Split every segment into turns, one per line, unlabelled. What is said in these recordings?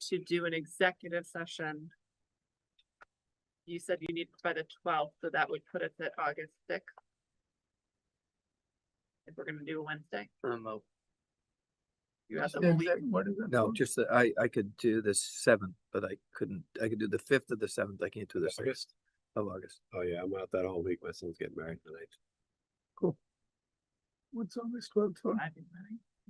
to do an executive session. You said you need by the twelfth, so that would put us at August sixth. If we're gonna do a Wednesday.
Remote.
Um, oh. You have the whole
Then
week.
that- What is it?
No, just that I, I could do the seventh, but I couldn't, I could do the fifth of the seventh. I can't do the sixth
August.
of August.
Oh, yeah, I'm out that whole week. My son's getting married tonight.
What's on this twelfth one?
I'd be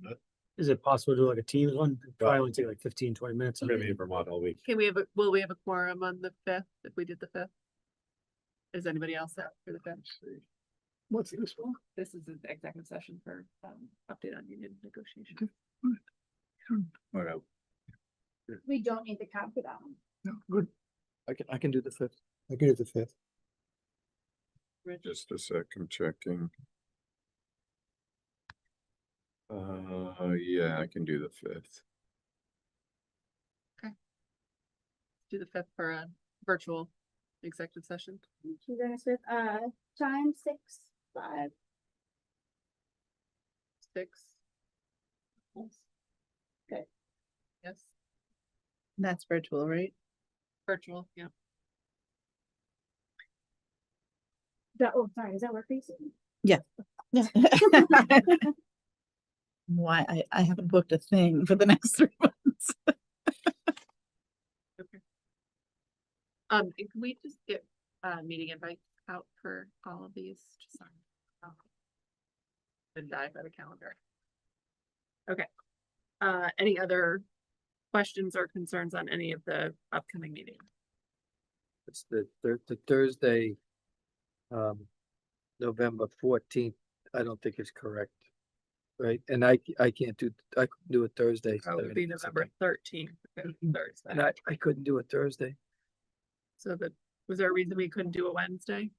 ready.
Is it possible to do like a Teams one? It'd Probably
Yeah.
only take like 15, 20 minutes.
I'm gonna be in Vermont all week.
Can we have, a will we have a quorum on the fifth, if we did the fifth? Is anybody else up for the fifth?
What's this one?
This is an executive session for, um, update on union negotiations.
All right.
We don't need to count for that one.
No, good.
I can, I can do the fifth.
I could do the fifth.
Rich?
Just a sec, I'm checking. Uh, yeah, I can do the fifth.
do the fifth for a virtual executive session.
You guys with, uh, time six, five,
Six.
Okay.
Yes,
That's virtual, right?
virtual, yeah.
that, oh, sorry, is that work for you? Susan?
Yeah. Why, I, I haven't booked a thing for the next three months.
Um, and can we just get, uh, meeting invites out for all of these? Just on- oh. Been dive by the calendar. Okay. Uh, any other questions or concerns on any of the upcoming meetings?
It's the, thir- the Thursday, um, November fourteenth, I don't think is correct. Right? And I, c- I can't do, I could do a Thursday.
That Oh, would be
30,
November
something.
thirteenth,
And
Thursday.
I, I couldn't do a Thursday.
So that, was there a reason we couldn't do a Wednesday?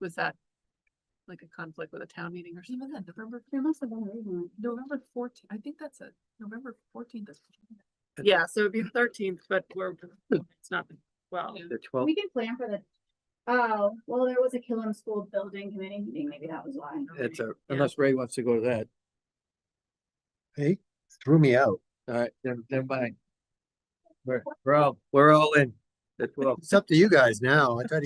Was that like a conflict with a town meeting or something? November
There must have been a reason.
November fourteenth, I think that's it, November fourteenth is. Yeah, so it'd be thirteenth, but we're, it's not, well,
The twelfth,
We can plan for the, oh, well, there was a Killam School Building Committee meeting, maybe that was why.
that's a,
Yeah.
unless Ray wants to go to that.
Hey, threw me out.
All right, then, then bye. We're, we're all, we're all in. The twelfth.
It's up to you guys now. I thought,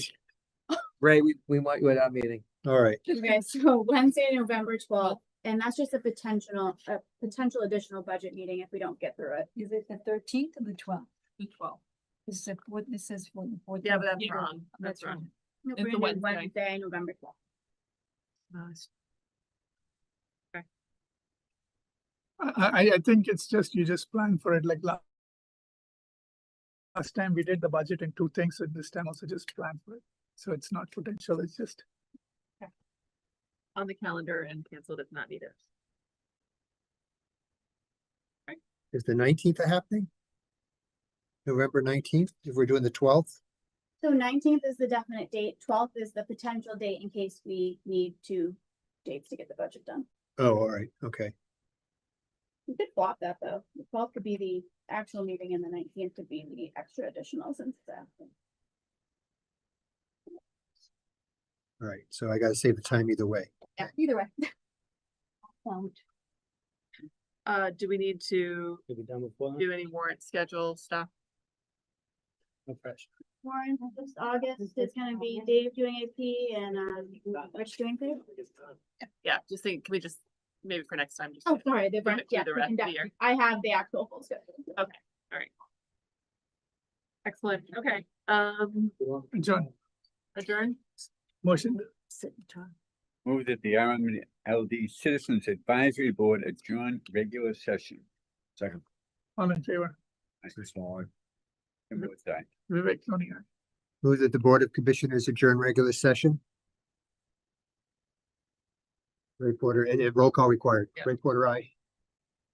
Ray, we, we want you at our meeting.
all right.
Okay, so Wednesday, November twelfth, and that's just a potential, a potential additional budget meeting if we don't get through it.
Is it the thirteenth or the twelfth?
the twelfth.
This is what this says for the fourth.
Yeah, but that's wrong, that's
That's
wrong.
If
It's
we're
a
gonna do
Wednesday.
Wednesday, November twelfth.
Uh,
I, I, I think it's just, you just plan for it like last. Last time we did the budget and two things, and this time also just plan for it. So it's not potential, it's just.
On the calendar and canceled if not needed.
Is the nineteenth happening? November nineteenth, if we're doing the twelfth?
So nineteenth is the definite date, twelfth is the potential date in case we need two dates to get the budget done.
Oh, all right, okay.
We could swap that though. The twelfth could be the actual meeting and the nineteenth could be the extra additional since the.
All right, so I gotta save the time either way.
Yeah, either way.
Uh, do we need to
Could be done before.
do any warrant schedule stuff?
No pressure.
Warren, this August is gonna be Dave doing AP and uh Rich doing food.
Yeah, just think, can we just, maybe for next time? just
Oh, sorry, the,
Bring it
yeah,
through the rest of the
yeah,
year.
I have the actual full schedule.
Okay. Excellent, okay, um,
John,
adjourn?
motion
Move that the RMLD Citizens Advisory Board adjourn regular session. Second.
All in favor,
Chris Waller. And votes aye.
Vivek Tony,
Move that the Board of Commissioners adjourn regular session. Ray Porter, and and roll call required.
Yeah.
Ray Porter, aye.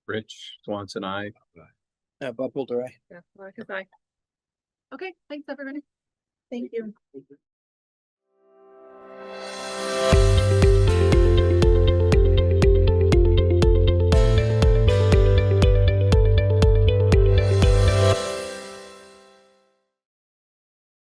Rich Swanson, I.
Uh, Bob Boulder, aye.
Yeah, well, I guess I- Okay, thanks, everybody.
Thank you.